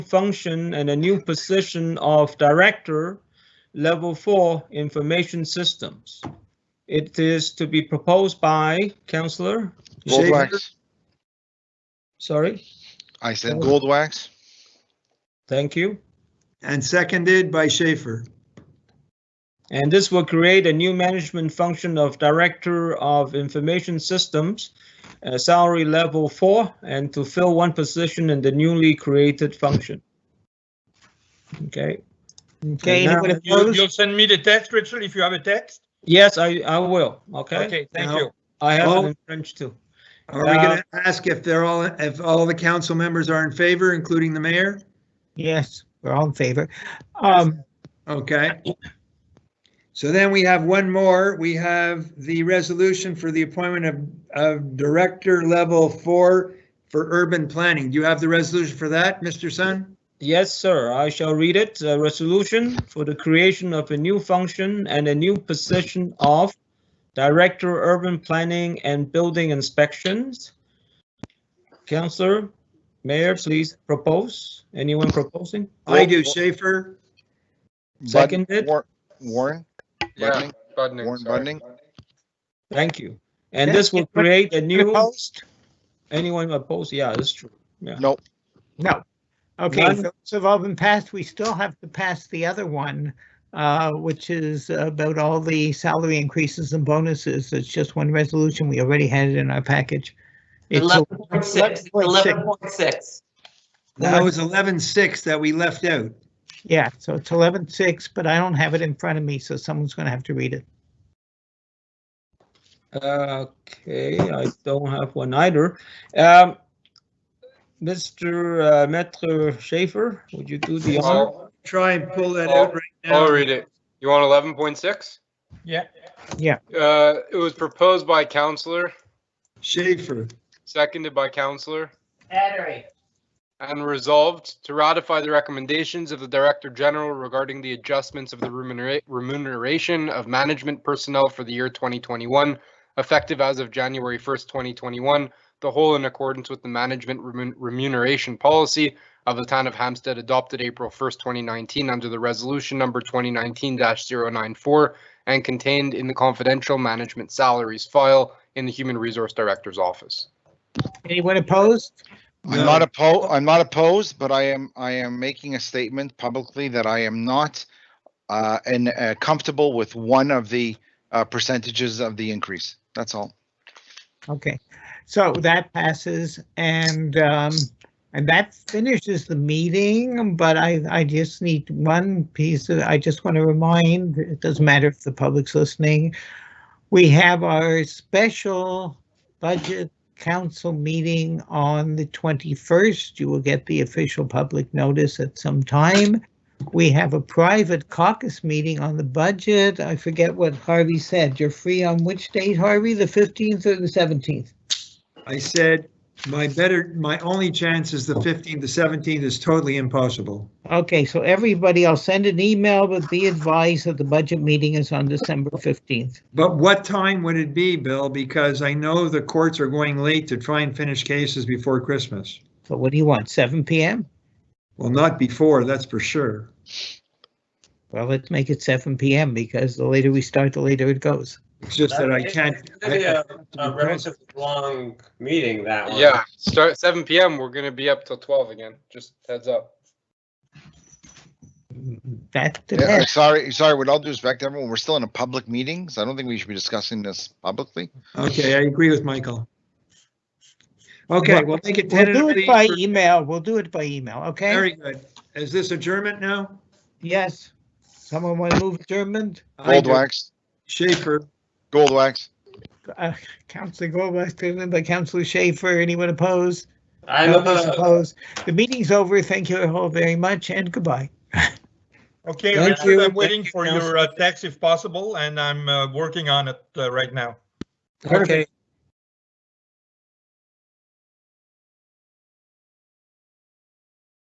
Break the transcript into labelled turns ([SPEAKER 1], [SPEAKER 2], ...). [SPEAKER 1] function and a new position of Director, Level 4 Information Systems. It is to be proposed by Councillor,
[SPEAKER 2] Goldwax.
[SPEAKER 1] sorry,
[SPEAKER 2] I said Goldwax.
[SPEAKER 1] thank you.
[SPEAKER 3] and seconded by Schaefer.
[SPEAKER 1] And this will create a new management function of Director of Information Systems, uh, salary level four, and to fill one position in the newly created function. Okay.
[SPEAKER 4] Okay,
[SPEAKER 1] now-
[SPEAKER 4] anybody
[SPEAKER 5] You,
[SPEAKER 4] opposed?
[SPEAKER 5] you'll send me the text, Richard, if you have a text?
[SPEAKER 1] Yes, I, I will, okay?
[SPEAKER 5] Okay, thank
[SPEAKER 3] Now-
[SPEAKER 5] you.
[SPEAKER 1] I have
[SPEAKER 3] Oh.
[SPEAKER 1] it in French too.
[SPEAKER 3] Are we going to
[SPEAKER 6] Uh,
[SPEAKER 3] ask if they're all, if all the council members are in favor, including the mayor?
[SPEAKER 4] Yes, we're all in favor. Um,
[SPEAKER 3] Okay. So then we have one more. We have the resolution for the appointment of, of Director Level Four for Urban Planning. Do you have the resolution for that, Mr. Sun?
[SPEAKER 1] Yes, sir, I shall read it. A resolution for the creation of a new function and a new position of Director Urban Planning and Building Inspections. Councillor, Mayor, please propose. Anyone proposing? Oh,
[SPEAKER 3] I do, Schaefer.
[SPEAKER 1] Seconded.
[SPEAKER 2] War- Warren,
[SPEAKER 6] Yeah,
[SPEAKER 2] Budnick?
[SPEAKER 6] Budnick.
[SPEAKER 2] Warren
[SPEAKER 6] sorry.
[SPEAKER 2] Budnick?
[SPEAKER 1] Thank you. And this will
[SPEAKER 4] Yeah.
[SPEAKER 1] create a new,
[SPEAKER 4] opposed?
[SPEAKER 1] anyone opposed? Yeah, that's true.
[SPEAKER 2] Nope.
[SPEAKER 4] No. Okay,
[SPEAKER 1] None.
[SPEAKER 4] so it's all been passed. We still have to pass the other one, uh, which is about all the salary increases and bonuses. It's just one resolution. We already had it in our package. It's a-
[SPEAKER 7] Eleven point six. Eleven point six.
[SPEAKER 3] That was eleven six that we left out.
[SPEAKER 4] Yeah, so it's eleven six, but I don't have it in front of me, so someone's gonna have to read it.
[SPEAKER 1] Okay, I don't have one either. Um, Mr. uh, Maître Schaefer, would you do the honor?
[SPEAKER 6] I'll,
[SPEAKER 3] Try and pull that out right
[SPEAKER 6] I'll
[SPEAKER 3] now.
[SPEAKER 6] read it. You want eleven point six?
[SPEAKER 5] Yeah.
[SPEAKER 4] Yeah.
[SPEAKER 6] Uh, it was proposed by counselor,
[SPEAKER 3] Schaefer.
[SPEAKER 6] seconded by counselor,
[SPEAKER 7] Battery.
[SPEAKER 6] and resolved to ratify the recommendations of the Director General regarding the adjustments of the remunera- remuneration of management personnel for the year twenty twenty-one, effective as of January first, twenty twenty-one, the whole in accordance with the management remun- remuneration policy of the town of Hampstead adopted April first, twenty nineteen, under the resolution number twenty nineteen 94 and contained in the confidential management salaries file in the Human Resource Director's office.
[SPEAKER 4] Anyone opposed?
[SPEAKER 2] I'm not opposed, I'm not opposed, but I am, I am making a statement publicly that I am not uh, and uh, comfortable with one of the uh, percentages of the increase. That's all.
[SPEAKER 4] Okay, so that passes and um, and that finishes the meeting, but I I just need one piece of, I just want to remind, it doesn't matter if the public's listening. We have our special budget council meeting on the twenty-first. You will get the official public notice at some time. We have a private caucus meeting on the budget. I forget what Harvey said. You're free on which date, Harvey? The fifteenth or the seventeenth?
[SPEAKER 3] I said, my better, my only chance is the fifteenth to seventeenth is totally impossible.
[SPEAKER 4] Okay, so everybody, I'll send an email with the advice that the budget meeting is on December fifteenth.
[SPEAKER 3] But what time would it be, Bill? Because I know the courts are going late to try and finish cases before Christmas.
[SPEAKER 4] So what do you want, seven PM?
[SPEAKER 3] Well, not before, that's for sure.
[SPEAKER 4] Well, let's make it seven PM because the later we start, the later it goes.
[SPEAKER 3] It's just that I can't.
[SPEAKER 8] It's gonna be a a relatively long meeting, that one.
[SPEAKER 6] Yeah, start seven PM. We're gonna be up till twelve again. Just heads up.
[SPEAKER 4] That
[SPEAKER 2] Yeah,
[SPEAKER 4] depends.
[SPEAKER 2] Sorry, sorry, with all due respect, to everyone, we're still in a public meeting, so I don't think we should be discussing this publicly.
[SPEAKER 3] Okay, I agree with Michael. Okay, we'll make it
[SPEAKER 4] We'll do it
[SPEAKER 3] tentatively.
[SPEAKER 4] by
[SPEAKER 3] for-
[SPEAKER 4] email. We'll do it by email, okay?
[SPEAKER 3] Very good. Is this adjournment now?
[SPEAKER 4] Yes. Someone want to move adjournment?
[SPEAKER 3] I do.
[SPEAKER 2] Goldwax,
[SPEAKER 3] Schaefer,
[SPEAKER 2] Goldwax.
[SPEAKER 4] Uh, Counselor Goldberg, seconded by Counselor Schaefer. Anyone opposed?
[SPEAKER 8] I'm,
[SPEAKER 4] Nobody's
[SPEAKER 8] uh,
[SPEAKER 4] opposed. The meeting's over. Thank you all very much and goodbye.
[SPEAKER 5] Okay,
[SPEAKER 1] Thank
[SPEAKER 5] Richard,
[SPEAKER 1] you.
[SPEAKER 5] I'm waiting
[SPEAKER 1] Thank you,
[SPEAKER 5] for your uh, text if possible, and I'm uh, working on it uh, right now.
[SPEAKER 1] Okay,